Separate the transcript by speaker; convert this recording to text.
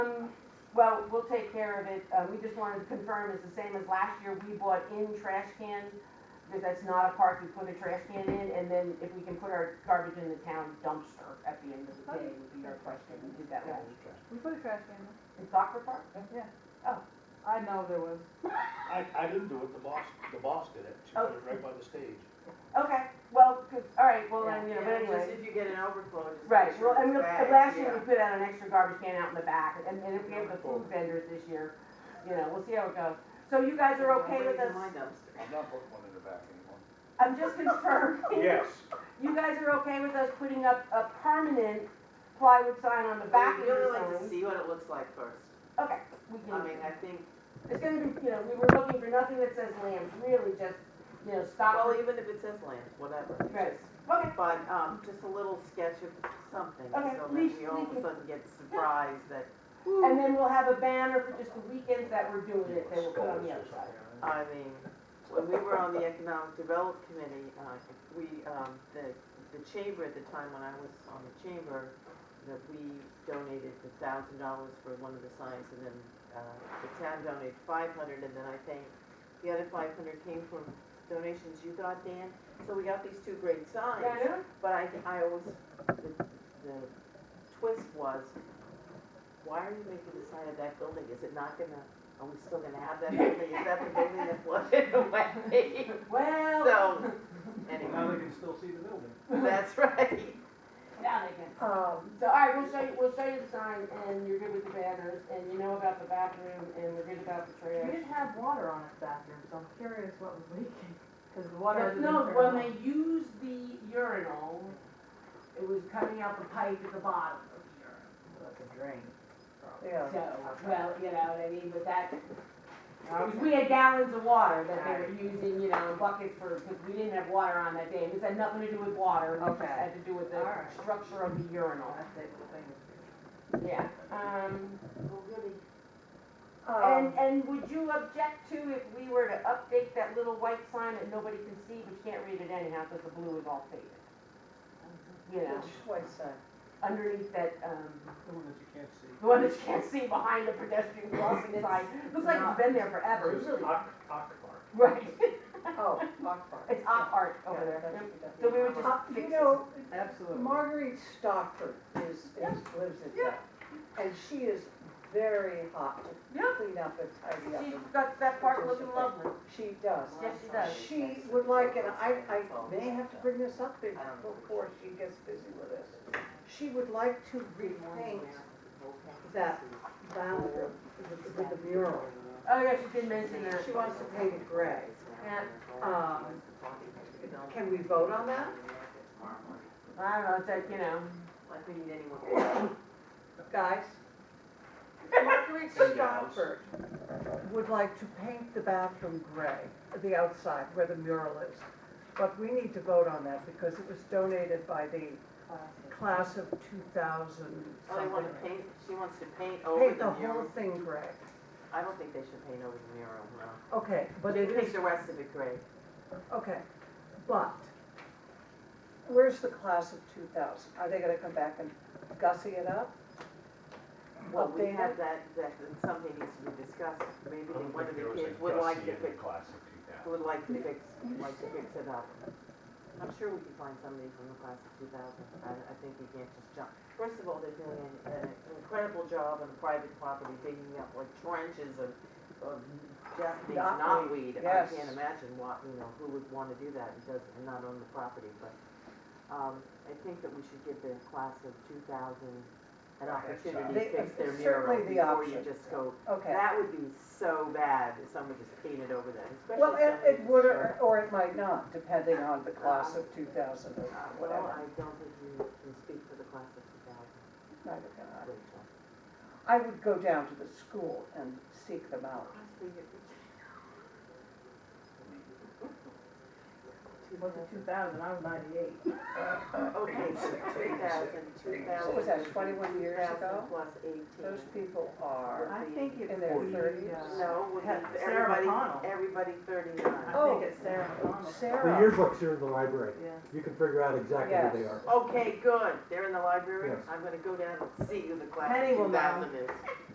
Speaker 1: Well, we'll take care of it. Uh, we just wanted to confirm it's the same as last year. We bought in trash cans because that's not a park. We put a trash can in and then if we can put our garbage in the town dumpster at the end of the day would be our question. We did that last year.
Speaker 2: We put a trash can in.
Speaker 1: In soccer park?
Speaker 2: I know there was.
Speaker 3: I, I didn't do it, the boss, the boss did it, she put it right by the stage.
Speaker 1: Okay, well, good. all right, well, then, you know, but
Speaker 4: Yeah,
Speaker 1: anyway.
Speaker 4: just if you get an overflow, just
Speaker 1: Right,
Speaker 4: make sure
Speaker 1: well, and
Speaker 4: it's
Speaker 1: we,
Speaker 4: bagged,
Speaker 1: last year
Speaker 4: yeah.
Speaker 1: we put out an extra garbage can out in the back, and, and if we have the food vendors this year, you know, we'll see how it goes. So you guys are okay with
Speaker 4: Bring it in my
Speaker 1: us,
Speaker 4: dumpster.
Speaker 5: I'm not putting one in the back anymore.
Speaker 1: I'm just confirming,
Speaker 3: Yes.
Speaker 1: you guys are okay with us putting up a permanent plywood sign on the back of
Speaker 4: We'd
Speaker 1: your
Speaker 4: really like
Speaker 1: sign?
Speaker 4: to see what it looks like first.
Speaker 1: Okay, we
Speaker 4: I
Speaker 1: can,
Speaker 4: mean, I think,
Speaker 1: it's gonna be, you know, we were looking for nothing that says lambs, really just, you know, stop.
Speaker 4: well, even if it says land, whatever. it's
Speaker 1: Uh, Right,
Speaker 4: just-
Speaker 1: okay,
Speaker 4: But, um, just a little sketch of something, so
Speaker 1: Okay,
Speaker 4: that
Speaker 1: leash-
Speaker 4: we all of a
Speaker 1: leash-
Speaker 4: sudden get surprised that,
Speaker 1: and then we'll have a banner for just the weekends that we're
Speaker 4: Oh,
Speaker 1: doing it, that we'll put on the other side.
Speaker 4: I mean, when we were on the Economic Development Committee, uh, we, um, the, the chamber at the time when I was on the chamber, that we donated the thousand dollars for one of the signs and then, uh, the town donated five hundred and then I think the other five hundred came from donations you got, Dan. So we got these two great signs.
Speaker 1: Yeah, I know.
Speaker 4: But I, I always, the, the twist was, why are you making the sign of that building? Is it not gonna, are we still gonna have that building? Is that the building that flooded away?
Speaker 1: Well.
Speaker 4: So, anyway,
Speaker 3: they can still see the building.
Speaker 4: that's right.
Speaker 1: Now they can. Um,
Speaker 6: Oh,
Speaker 1: so, all right, we'll show you, we'll show you the sign, and you're good with the banners, and you know about the bathroom, and we're good about the
Speaker 2: We
Speaker 1: trash.
Speaker 2: didn't have water on its bathroom, so I'm curious what was leaking, because the water
Speaker 1: But
Speaker 2: had been
Speaker 1: No,
Speaker 2: turned
Speaker 1: when
Speaker 2: on.
Speaker 1: they used the urinal, it was coming out the pipe at the bottom of the urinal.
Speaker 2: Like a drain. Oh,
Speaker 1: So, well, you know what I mean, but that, because we had gallons of water that they were using, you know, buckets for, because we didn't have water on that day. This had nothing to do with water, it just
Speaker 2: Okay.
Speaker 1: had to do with the
Speaker 2: All right.
Speaker 1: structure of the urinal.
Speaker 2: That's it, the thing is-
Speaker 1: Yeah, um. And,
Speaker 2: Um,
Speaker 1: and would you object to if we were to update that little white sign that nobody can see, but you can't read it anyhow, because the blue is all faded? You know,
Speaker 4: white sign?
Speaker 1: underneath that, um,
Speaker 3: The one that you can't see.
Speaker 1: the one that you can't see behind the pedestrian crossing sign, looks like it's been there forever, it's
Speaker 3: It's
Speaker 1: really,
Speaker 3: Ock, Ock Park.
Speaker 1: right,
Speaker 6: Oh, Lock Park.
Speaker 1: it's op art over there. So we would
Speaker 6: Uh,
Speaker 1: just fix
Speaker 6: You
Speaker 1: it.
Speaker 6: know,
Speaker 2: Absolutely.
Speaker 6: Marguerite Stockford is, is, lives in town. And she is very hot to
Speaker 1: Yeah.
Speaker 6: clean up and tidy up.
Speaker 1: She's
Speaker 6: and
Speaker 1: got that park looking lovely.
Speaker 6: She does.
Speaker 1: Yes, she does.
Speaker 6: She would like, and I, I may have to bring this up be- before she gets busy with us. She would like to repaint that bathroom with with the mural.
Speaker 1: Oh, yeah, she did mention that.
Speaker 6: She wants to paint it gray.
Speaker 1: Yeah,
Speaker 6: Um, Can we vote on that?
Speaker 1: I don't know, it's like, you know,
Speaker 4: Like we need anyone.
Speaker 6: Guys, Marguerite
Speaker 3: And gals.
Speaker 6: Stockford would like to paint the bathroom gray, the outside where the mural is. But we need to vote on that because it was donated by the class of 2000
Speaker 4: Oh, they wanna
Speaker 6: something.
Speaker 4: paint, she wants to paint over
Speaker 6: Paint the
Speaker 4: the
Speaker 6: whole
Speaker 4: mural.
Speaker 6: thing gray.
Speaker 4: I don't think they should paint over the mural, no.
Speaker 6: Okay, but it
Speaker 4: Paint
Speaker 6: is,
Speaker 4: the rest of it gray.
Speaker 6: okay, but where's the class of 2000? Are they gonna come back and gussy it up?
Speaker 4: Well, we
Speaker 6: Update
Speaker 4: have
Speaker 6: it?
Speaker 4: that, that, that something needs to be discussed, maybe
Speaker 5: I don't
Speaker 4: one of
Speaker 5: think there
Speaker 4: the
Speaker 5: was a
Speaker 4: kids would like
Speaker 5: Gussie
Speaker 4: to
Speaker 5: in the
Speaker 4: fix,
Speaker 5: class of two thousand.
Speaker 4: would like to fix, like to fix it up. I'm sure we can find somebody from the class of two thousand, I, I think we can't just jump. First of all, they're doing an, uh, an incredible job on private property, digging up like trenches of, of Japanese
Speaker 6: Knotweed,
Speaker 4: knotweed.
Speaker 6: yes.
Speaker 4: I can't imagine what, you know, who would wanna do that and does, and not own the property, but, um, I think that we should give the class of two thousand an opportunity to
Speaker 6: They-
Speaker 4: fix their
Speaker 6: it's
Speaker 4: mural
Speaker 6: certainly the
Speaker 4: before you
Speaker 6: option.
Speaker 4: just go.
Speaker 6: Okay.
Speaker 4: That would be so bad if someone just painted over that,
Speaker 6: Well,
Speaker 4: especially
Speaker 6: it,
Speaker 4: somebody.
Speaker 6: it would, or or it might not, depending on the class of two thousand or
Speaker 4: Uh, Well,
Speaker 6: whatever.
Speaker 4: I don't think you can speak for the class of two thousand,
Speaker 6: Neither can I.
Speaker 4: Rachel.
Speaker 6: I would go down to the school and seek them out.
Speaker 2: It wasn't two thousand, I was ninety-eight.
Speaker 4: Okay, so two thousand, two thousand.
Speaker 6: What was that, 21 years ago?
Speaker 4: Plus eighteen.
Speaker 6: Those people are
Speaker 2: I think
Speaker 6: in
Speaker 2: it's.
Speaker 6: their
Speaker 5: Forty.
Speaker 6: thirties.
Speaker 4: No, would be
Speaker 2: Sarah Oh.
Speaker 4: everybody,
Speaker 2: McConnell.
Speaker 4: everybody thirty-nine.
Speaker 2: I think it's Sarah McConnell.
Speaker 7: The
Speaker 6: Sarah,
Speaker 7: yearbooks are in the library.
Speaker 2: Yeah.
Speaker 7: You can figure out exactly who they
Speaker 6: Yes.
Speaker 7: are.
Speaker 4: Okay, good, they're in the library,
Speaker 7: Yes.
Speaker 4: I'm gonna go down and see who the class
Speaker 2: Penny
Speaker 4: of
Speaker 2: will
Speaker 4: two
Speaker 2: know.
Speaker 4: thousand is.